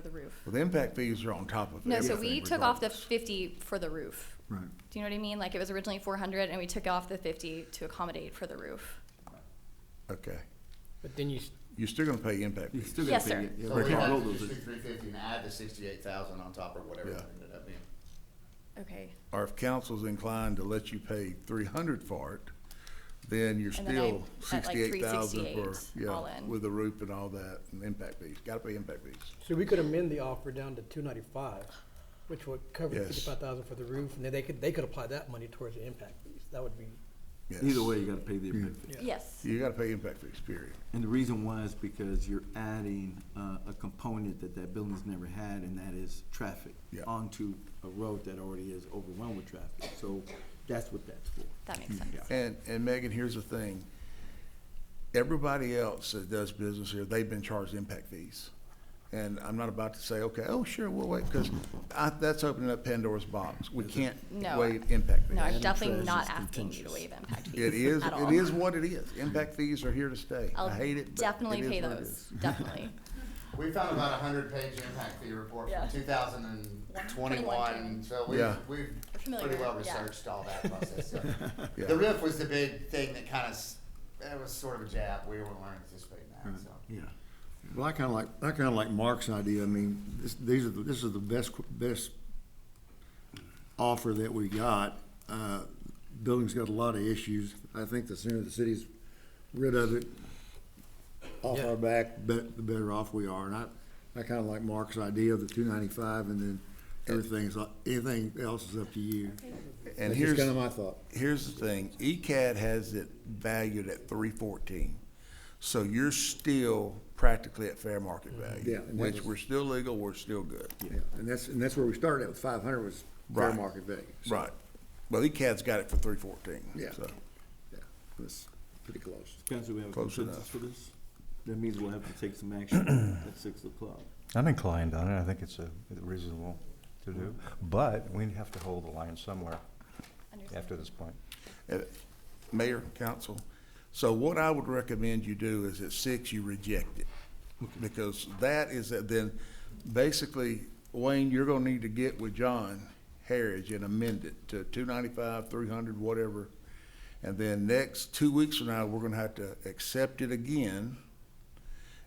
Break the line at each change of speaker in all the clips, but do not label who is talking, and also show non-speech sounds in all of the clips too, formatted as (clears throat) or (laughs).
for the roof.
Well, the impact fees are on top of
No,
everything.
so we took off the
regardless.
fifty for the roof.
Right.
Do you know what I mean? Like it was originally four hundred and we took off the fifty to accommodate for the roof.
Okay.
But then you, s-
You're still gonna pay impact
You
fees.
still gotta
Yes,
pay
sir.
it. Yeah,
So
we
we
can't
have
roll
to
those.
just take three fifty and add the sixty-eight thousand on top or whatever
Yeah.
it ended up being.
Okay.
Or if council's inclined to let you pay three hundred for it, then you're
And then I-
still
at like
sixty-eight thousand for,
368 all
yeah,
in.
with the roof and all that, and impact fees. Gotta pay impact fees.
So we could amend the offer down to two ninety-five, which would cover
Yes.
fifty-five thousand for the roof, and then they could, they could apply that money towards the impact fees. That would be,
Yes.
Either way, you gotta pay the impact fee.
Yeah.
Yes.
You gotta pay impact fees, period.
And the reason why is because you're adding, uh, a component that that building's never had, and that is traffic.
Yeah.
Onto a road that already is overwhelmed with traffic, so that's what that's for.
That makes sense.
And, and Megan, here's the thing. Everybody else that does business here, they've been charged impact fees. And I'm not about to say, okay, oh, sure, we'll wait, because I, that's opening up Pandora's box. We can't
No.
waive impact fees.
No, I'm
Adding
definitely
trash
not
is
asking you to
contentious.
waive impact fees. (laughs)
It is,
at
it
all.
is what it is. Impact fees are here to stay.
I'll
I hate it, but
Definitely
it is
pay
what it
those,
is. (laughs)
definitely.
We found about a hundred-page impact fee report
Yeah.
from two thousand and twenty-one, so we've,
Yeah.
we've
We're familiar
pretty well
with it, yeah.
researched all that process. so.
Yeah.
The roof was the big thing that kind of, that was sort of a jab, we weren't anticipating that, so.
Yeah.
Well, I kind of like, I kind of like Mark's idea. I mean, this, these are, the- this is the best, qu- best offer that we got. Uh, Building's got a lot of issues. I think the sooner the city's rid of it, off our back, bet, the better off we are. And I, I kind of like Mark's idea of the two ninety-five and then everything's, up- anything else is up to you.
And
That's
here's.
just kind of my thought.
Here's the thing, E ECAD has it valued at three fourteen. So you're still practically at fair market
Yeah,
value,
and that
which
was-
we're still legal, we're still good.
Yeah, And that's, and that's where we started at with five hundred was fair
Right.
market value. So,
Right. Well, ECAD's got it for three fourteen,
Yeah.
so.
Yeah, that's pretty close.
Council, we have a
Close
consensus
enough.
for this? That means we'll have to take
(clears throat)
some action at six o'clock.
I'm inclined on it. I think it's uh, reasonable to do, but we have to hold the line somewhere
Understand.
after this point.
Uh, Mayor, council, so what I would recommend you do is at six, you reject it. Because that is, that then, basically, Wayne, you're gonna need to get with John Harris and amend it to two ninety-five, three hundred, whatever. And then next, two weeks from now, we're gonna have to accept it again.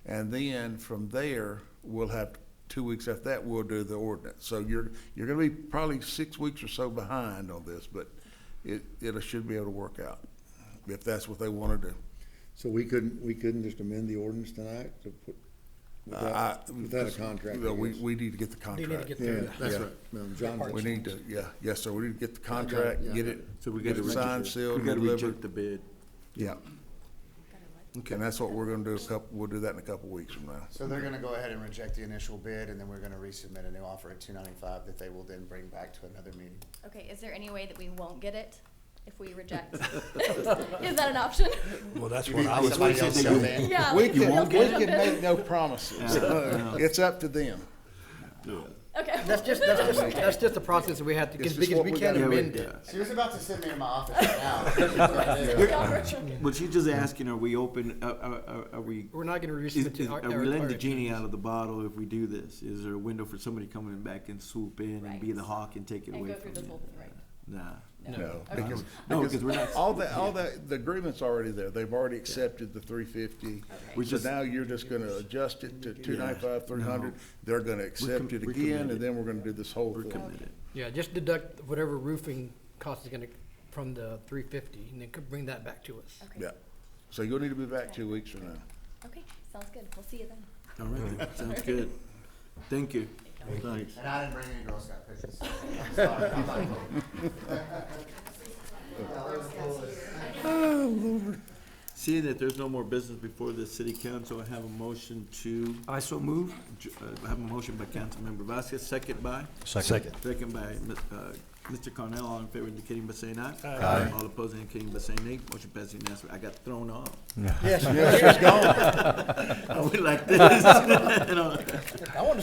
And then from there, we'll have, two weeks after that, we'll do the ordinance. So you're, you're gonna be probably six weeks or so behind on this, but it, it should be able to work out, if that's what they wanna do.
So we couldn't, we couldn't just amend the ordinance tonight to put,
I-
without, without a contract? I
No, Uh, we,
guess?
we need to get the
they need to
contract.
get
Yeah,
through that.
that's
Yeah.
right. No, John-
We need to, yeah, yes, sir, we need to get the
got it,
contract,
yeah.
get it,
So we
get
gotta
it signed,
reject, we
sealed,
gotta
and
reject
delivered.
the bid.
Yeah,
Okay.
and that's what we're gonna do a couple, we'll do that in a couple weeks from now.
So they're gonna go ahead and reject the initial bid, and then we're gonna resubmit a new offer at two ninety-five that they will then bring back to another meeting.
Okay, is there any way that we won't get it if we
(laughs)
reject? Is that an option?
Well, that's
You
what
mean
I was
somebody
thinking.
else jump in?
Yeah.
We
like,
can,
they'll
we
get
can
it.
make no promises, it's up to them.
Okay.
(laughs)
That's just, that's just, that's just the process that we had to,
It's
because
just
because
what
we
we
can't
gotta
Yeah, we-
amend it.
yeah.
She was about to send me to my office right now.
(laughs)
But she's just asking, are we open, are, are- are, are we?
We're not gonna reduce
is-
it
is-
to our.
Are
our-
we letting the
our-
genie out of the bottle if we do this? Is there a window for somebody coming in back and swoop in and be
Right.
the hawk and take it
And
away
go through
from
this whole
you?
thing, right.
Nah.
No,
Okay.
because,
No, because we're
because
not-
all the, all the, the agreement's already there, they've already accepted the three fifty.
We
So
just-
now you're just gonna adjust it to two ninety-five, three hundred,
No.
they're gonna accept it
we're
again,
committed.
and then we're gonna do this whole
We're
thing.
committed.
Yeah, just deduct whatever roofing cost is gonna, from the three fifty, and then could bring that back to us.
Okay.
Yeah, so you'll need to be back two weeks from now.
Okay, sounds good. We'll see you then.
All right, then. sounds good. Thank you. Thanks.
And I didn't bring any Girl Scout pictures. so I'm sorry. I'm not voting.
Seeing that there's no more business before the city council, I have a motion to,
I so move.
adj- uh, I have a motion by Councilmember Vasquez, second by?
Second.
Second by uh, Mr. Cornell, all in favor indicating by saying aye. Aye. All opposed indicating by saying nay. Motion passes unanimously. I got thrown off.
Yes,
Yes, she's gone.
(laughs) I went like this. You know?
I want to